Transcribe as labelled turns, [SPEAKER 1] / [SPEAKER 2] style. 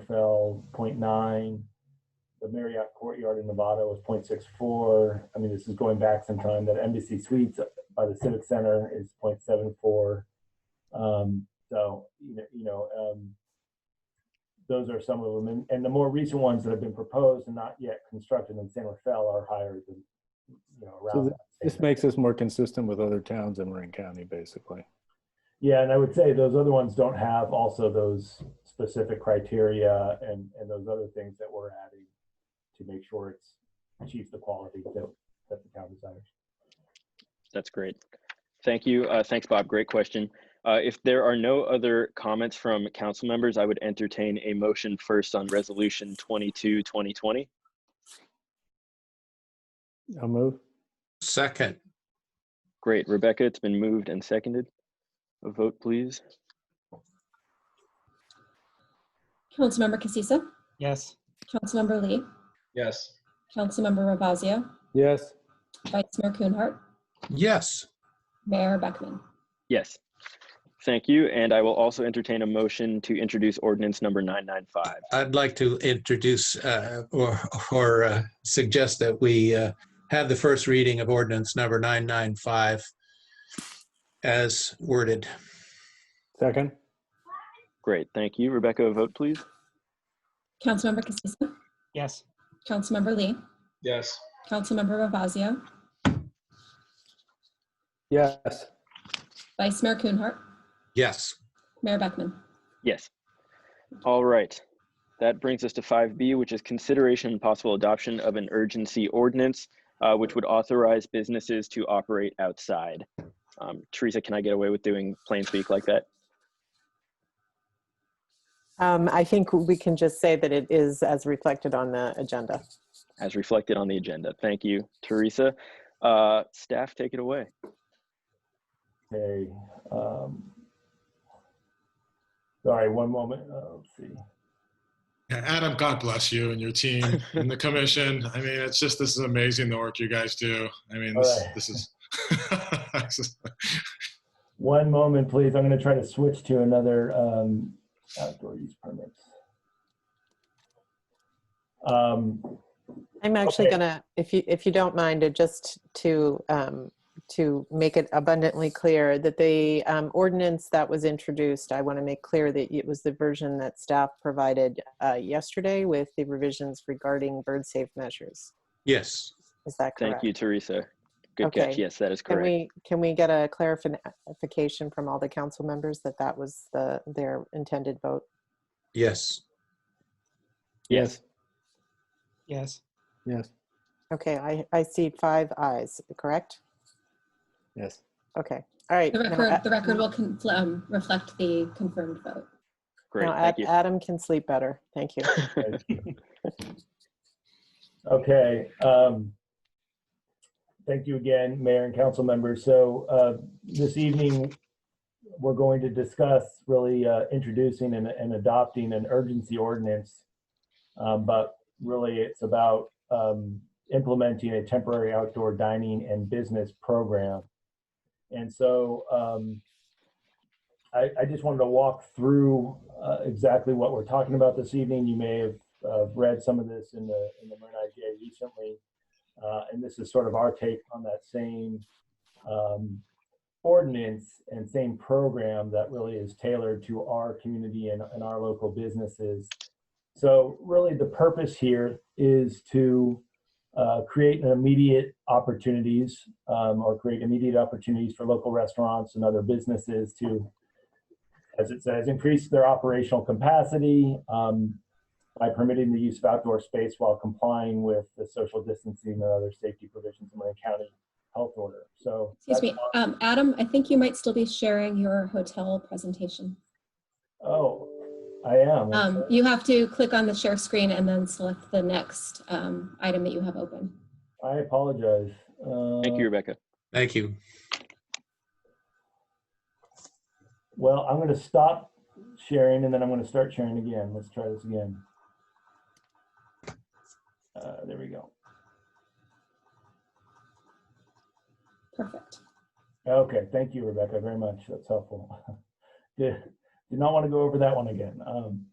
[SPEAKER 1] fell 0.9. The Marriott Courtyard in Nevada was 0.64. I mean, this is going back some time, that Embassy Suites by the Civic Center is 0.74. Um, so, you know, you know, um, those are some of them. And, and the more recent ones that have been proposed and not yet constructed in San Rafael are higher than, you know,
[SPEAKER 2] So
[SPEAKER 1] around.
[SPEAKER 2] th-
[SPEAKER 1] that.
[SPEAKER 2] This makes us more consistent with other towns in Marin County, basically.
[SPEAKER 1] Yeah, and I would say those other ones don't have also those specific criteria and, and those other things that we're adding to make sure it's achieves the quality that, that the town desires.
[SPEAKER 3] That's great. Thank you. Uh, thanks, Bob. Great question. Uh, if there are no other comments from council members, I would entertain a motion first on resolution 22, 2020.
[SPEAKER 2] I'll move.
[SPEAKER 4] Second,
[SPEAKER 3] Great. Rebecca, it's been moved and seconded. A vote, please.
[SPEAKER 5] Councilmember Casissa,
[SPEAKER 6] Yes.
[SPEAKER 5] Councilmember Lee,
[SPEAKER 6] Yes.
[SPEAKER 5] Councilmember Ravazio,
[SPEAKER 2] Yes,
[SPEAKER 5] Vice Mayor Coonheart,
[SPEAKER 4] yes,
[SPEAKER 5] Mayor Beckman.
[SPEAKER 3] Yes. Thank you. And I will also entertain a motion to introduce ordinance number 995.
[SPEAKER 4] I'd like to introduce uh, or or uh, suggest that we uh, have the first reading of ordinance number 995 as worded.
[SPEAKER 2] second.
[SPEAKER 3] Great. Thank you. Rebecca, a vote, please.
[SPEAKER 5] Councilmember Casissa,
[SPEAKER 6] Yes.
[SPEAKER 5] Councilmember Lee,
[SPEAKER 6] Yes.
[SPEAKER 5] Councilmember Ravazio,
[SPEAKER 2] Yes,
[SPEAKER 5] Vice Mayor Coonheart,
[SPEAKER 4] Yes,
[SPEAKER 5] Mayor Beckman.
[SPEAKER 3] Yes. All right. That brings us to 5B, which is consideration and possible adoption of an urgency ordinance, uh, which would authorize businesses to operate outside. Um, Teresa, can I get away with doing plain speak like that?
[SPEAKER 7] Um, I think we can just say that it is as reflected on the agenda.
[SPEAKER 3] As reflected on the agenda. Thank you, Teresa. Uh, staff, take it away.
[SPEAKER 1] Okay. um, Sorry, one moment. Uh, Let's see.
[SPEAKER 8] Yeah, Adam, God bless you and your team and the commission. I mean, it's just this is amazing the work you guys do. I mean, this,
[SPEAKER 1] Alright.
[SPEAKER 8] this is. this is-
[SPEAKER 1] One moment, please. I'm going to try to switch to another um, outdoor use permits. Um,
[SPEAKER 7] I'm actually
[SPEAKER 1] Okay.
[SPEAKER 7] gonna, if you, if you don't mind, uh, just to, um, to make it abundantly clear that the um, ordinance that was introduced, I want to make clear that it was the version that staff provided uh, yesterday with the revisions regarding bird safe measures.
[SPEAKER 4] yes.
[SPEAKER 7] Is that
[SPEAKER 3] Thank
[SPEAKER 7] correct?
[SPEAKER 3] you, Teresa. Good catch.
[SPEAKER 7] Okay.
[SPEAKER 3] Yes, that is
[SPEAKER 7] Can
[SPEAKER 3] correct.
[SPEAKER 7] we, can we get a clarification from all the council members that that was the, their intended vote?
[SPEAKER 4] Yes.
[SPEAKER 3] Yes.
[SPEAKER 6] Yes.
[SPEAKER 2] yes,
[SPEAKER 7] Okay, I, I see five eyes, correct?
[SPEAKER 2] yes.
[SPEAKER 7] Okay, all right.
[SPEAKER 5] The
[SPEAKER 7] now
[SPEAKER 5] record,
[SPEAKER 7] a-
[SPEAKER 5] the record will con- um, reflect the confirmed vote.
[SPEAKER 3] Great.
[SPEAKER 7] now
[SPEAKER 3] Thank
[SPEAKER 7] Ad- Adam can sleep better. Thank you.
[SPEAKER 3] you.
[SPEAKER 1] Okay. um, Thank you again, Mayor and council members. So uh, this evening, we're going to discuss really uh, introducing and- and adopting an urgency ordinance. Um, But really, it's about um, implementing a temporary outdoor dining and business program. And so um, I I just wanted to walk through uh, exactly what we're talking about this evening. You may have uh, read some of this in the in the Marin IGA recently, uh, and this is sort of our take on that same um, ordinance and same program that really is tailored to our community and, and our local businesses. So really, the purpose here is to uh, create an immediate opportunities um, or create immediate opportunities for local restaurants and other businesses to, as it says, increase their operational capacity, um, by permitting the use of outdoor space while complying with the social distancing and other safety provisions in Marin County Health Order. So.
[SPEAKER 5] Excuse
[SPEAKER 1] that's
[SPEAKER 5] me,
[SPEAKER 1] on-
[SPEAKER 5] um, Adam, I think you might still be sharing your hotel presentation.
[SPEAKER 1] Oh, I am.
[SPEAKER 5] Um, you have to click on the share screen and then select the next um, item that you have open.
[SPEAKER 1] I apologize. Uh,
[SPEAKER 3] Thank you, Rebecca.
[SPEAKER 4] Thank you.
[SPEAKER 1] Well, I'm going to stop sharing and then I'm going to start sharing again. Let's try this again. Uh, there we go.
[SPEAKER 5] Perfect.
[SPEAKER 1] Okay, thank you, Rebecca, very much. That's helpful. Did, did not want to go over that one again. Um,